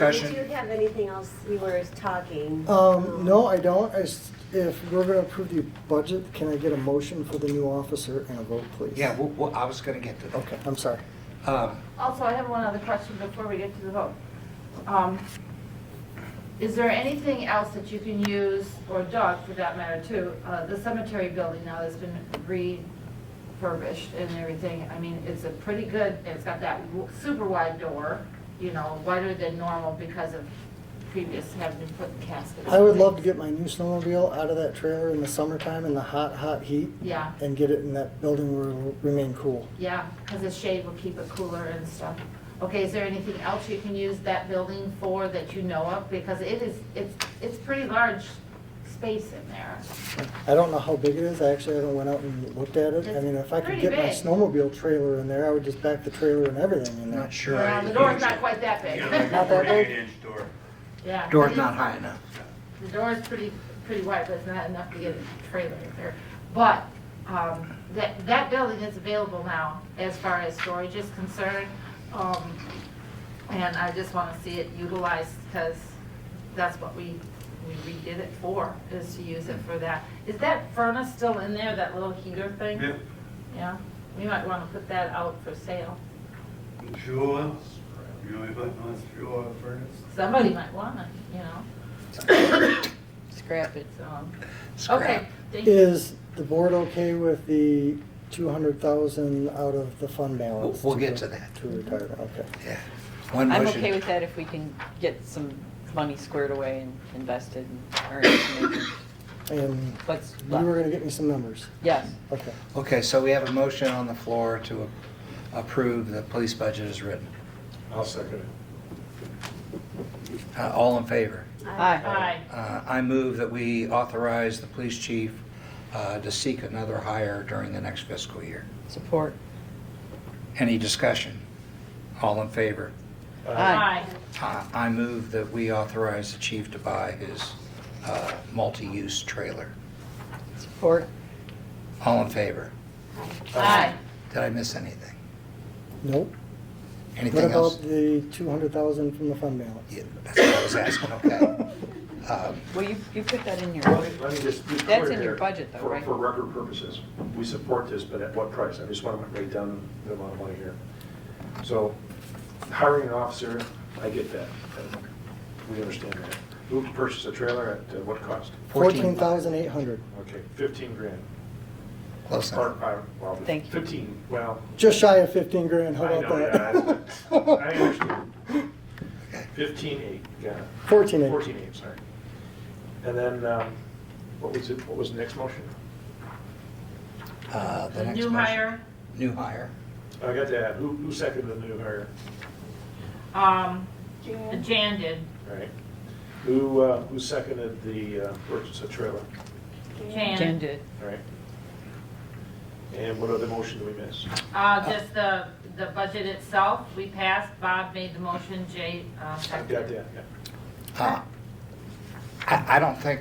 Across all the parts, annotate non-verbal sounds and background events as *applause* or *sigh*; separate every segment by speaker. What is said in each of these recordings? Speaker 1: Did
Speaker 2: discussion.
Speaker 1: you have anything else you were talking?
Speaker 3: Um, no, I don't. I s if we're gonna approve the budget, can I get a motion for the new officer and a vote, please?
Speaker 2: Yeah, well, well, I was gonna get to that.
Speaker 3: Okay, I'm sorry.
Speaker 2: Um,
Speaker 4: Also, I have one other question before we get to the vote. Um, Is there anything else that you can use, or Doug for that matter too, uh, the cemetery building now that's been refurbished and everything? I mean, it's a pretty good, it's got that w- super wide door, you know, wider than normal because of previous having to put caskets.
Speaker 3: I would love to get my new snowmobile out of that trailer in the summertime in the hot, hot heat
Speaker 4: Yeah,
Speaker 3: and get it in that building where it'll remain cool.
Speaker 4: yeah, because the shade will keep it cooler and stuff. Okay, is there anything else you can use that building for that you know of? Because it is, it's, it's pretty large space in there.
Speaker 3: I don't know how big it is. I actually haven't went out and looked at it. I mean, if I could
Speaker 4: It's
Speaker 3: get my
Speaker 4: pretty big.
Speaker 3: snowmobile trailer in there, I would just back the trailer and everything in
Speaker 2: I'm
Speaker 3: there.
Speaker 2: not sure.
Speaker 4: Well, Uh, the door's not quite that big.
Speaker 5: Yeah,
Speaker 3: that
Speaker 5: like a
Speaker 3: big.
Speaker 5: eight inch door.
Speaker 4: *laughs* Yeah.
Speaker 2: Door's not high enough.
Speaker 4: The door is pretty, pretty wide, but it's not enough to get a trailer in there. But, um, that, that building is available now as far as storage is concerned. Um, and I just wanna see it utilized, cause that's what we, we redid it for, is to use it for that. Is that furnace still in there, that little heater thing?
Speaker 5: Yeah,
Speaker 4: Yeah, we might wanna put that out for sale.
Speaker 5: fuel oil, you know, if I want fuel oil furnace.
Speaker 4: Somebody might want it, you know,
Speaker 6: Scrap it.
Speaker 4: so,
Speaker 2: Scrap.
Speaker 4: okay, thank you.
Speaker 3: Is the board okay with the two hundred thousand out of the fund balance?
Speaker 2: We'll- we'll get to that.
Speaker 3: To retire, okay.
Speaker 2: Yeah. One
Speaker 6: I'm
Speaker 2: motion.
Speaker 6: okay with that if we can get some money squared away and invested and earned. maybe.
Speaker 3: And
Speaker 6: What's
Speaker 3: you were
Speaker 6: left?
Speaker 3: gonna get me some numbers,
Speaker 6: Yes.
Speaker 3: okay.
Speaker 2: Okay, so we have a motion on the floor to a- approve the police budget as written.
Speaker 7: I'll second it.
Speaker 2: Uh, All in favor?
Speaker 6: Aye.
Speaker 4: Aye.
Speaker 2: Uh, I move that we authorize the police chief uh, to seek another hire during the next fiscal year.
Speaker 6: Support.
Speaker 2: Any discussion? All in favor?
Speaker 4: Aye.
Speaker 2: Uh, I move that we authorize the chief to buy his uh, multi-use trailer.
Speaker 6: Support.
Speaker 2: All in favor?
Speaker 4: Aye.
Speaker 2: Did I miss anything?
Speaker 3: Nope. What
Speaker 2: Anything else?
Speaker 3: about the two hundred thousand from the fund balance?
Speaker 2: Yeah, That's what I was asking, okay. Um,
Speaker 6: Well, you, you put that in
Speaker 7: Let
Speaker 6: your,
Speaker 7: me, let me just be clear
Speaker 6: That's in
Speaker 7: here.
Speaker 6: your budget though,
Speaker 7: For-
Speaker 6: right?
Speaker 7: For record purposes, we support this, but at what price? I just want to break down the amount of money here. So hiring an officer, I get that. We understand that. Who can purchase a trailer at uh, what cost?
Speaker 3: Fourteen thousand eight hundred.
Speaker 7: Okay, 15 grand.
Speaker 2: Close
Speaker 7: Or,
Speaker 2: enough.
Speaker 7: uh, well,
Speaker 6: Thank you.
Speaker 7: 15, well,
Speaker 3: Just shy of fifteen grand, how
Speaker 7: I know,
Speaker 3: about
Speaker 7: yeah, I
Speaker 3: that?
Speaker 7: understand. 15.8, got it.
Speaker 3: Fourteen eight.
Speaker 7: 14.8, sorry. And then, um, what was it, what was the next motion?
Speaker 2: Uh, the next
Speaker 4: New
Speaker 2: motion-
Speaker 4: hire,
Speaker 2: New hire.
Speaker 7: I got that. Who, who seconded the new hire?
Speaker 4: um,
Speaker 1: Jan?
Speaker 4: Jan did,
Speaker 7: All right. Who, uh, who seconded the uh, purchase of trailer?
Speaker 6: Jen
Speaker 4: Jan,
Speaker 6: did.
Speaker 7: All right. And what other motion do we miss?
Speaker 4: uh, just the, the budget itself, we passed, Bob made the motion, Jay, uh,
Speaker 7: I got
Speaker 4: seconded.
Speaker 7: that, yeah.
Speaker 2: Uh, I, I don't think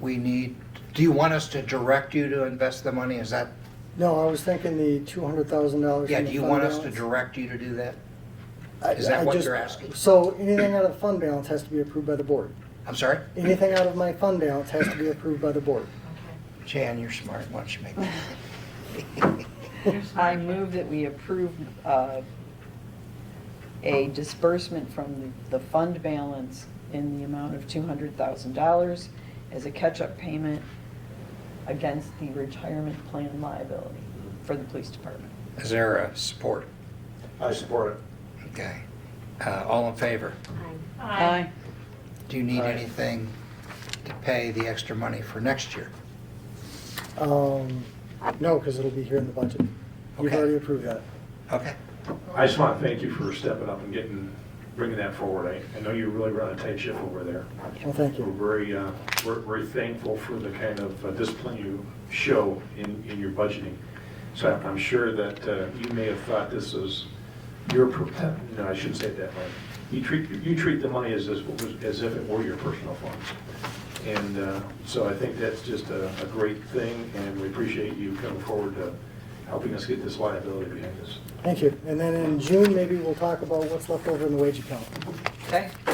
Speaker 2: we need, do you want us to direct you to invest the money? Is that,
Speaker 3: *laughs* No, I was thinking the two hundred thousand dollars
Speaker 2: yeah,
Speaker 3: from the fund balance.
Speaker 2: do you want us to direct you to do that?
Speaker 3: I-
Speaker 2: is that
Speaker 3: I
Speaker 2: what
Speaker 3: just-
Speaker 2: you're asking?
Speaker 3: So anything out of the fund balance has to be approved by the board.
Speaker 2: I'm sorry?
Speaker 3: Anything out of my fund balance has to be approved by the board.
Speaker 4: Okay.
Speaker 2: Jan, you're smart. Why don't you make
Speaker 3: *laughs*
Speaker 6: I move that we approve uh, a disbursement from the the fund balance in the amount of $200,000 as a catch-up payment against the retirement plan liability for the police department.
Speaker 2: Is there a support?
Speaker 7: I support it.
Speaker 2: Okay. Uh, All in favor?
Speaker 4: Aye.
Speaker 2: Do you need
Speaker 7: Aye.
Speaker 2: anything to pay the extra money for next year?
Speaker 3: Um, no, because it'll be here in the budget. You've
Speaker 2: Okay.
Speaker 3: already approved that.
Speaker 2: Okay.
Speaker 7: I just want to thank you for stepping up and getting, bringing that forward. I, I know you really run a tight ship over there.
Speaker 3: Well, thank
Speaker 7: We're
Speaker 3: you.
Speaker 7: very, uh, we're very thankful for the kind of uh, discipline you show in, in your budgeting. So I'm sure that uh, you may have thought this was your, per- no, I shouldn't say it that way. You treat, you treat the money as, as as if it were your personal funds. And uh, so I think that's just a, a great thing, and we appreciate you coming forward to helping us get this liability behind us.
Speaker 3: Thank you. And then in June, maybe we'll talk about what's left over in the wage account.
Speaker 6: Okay?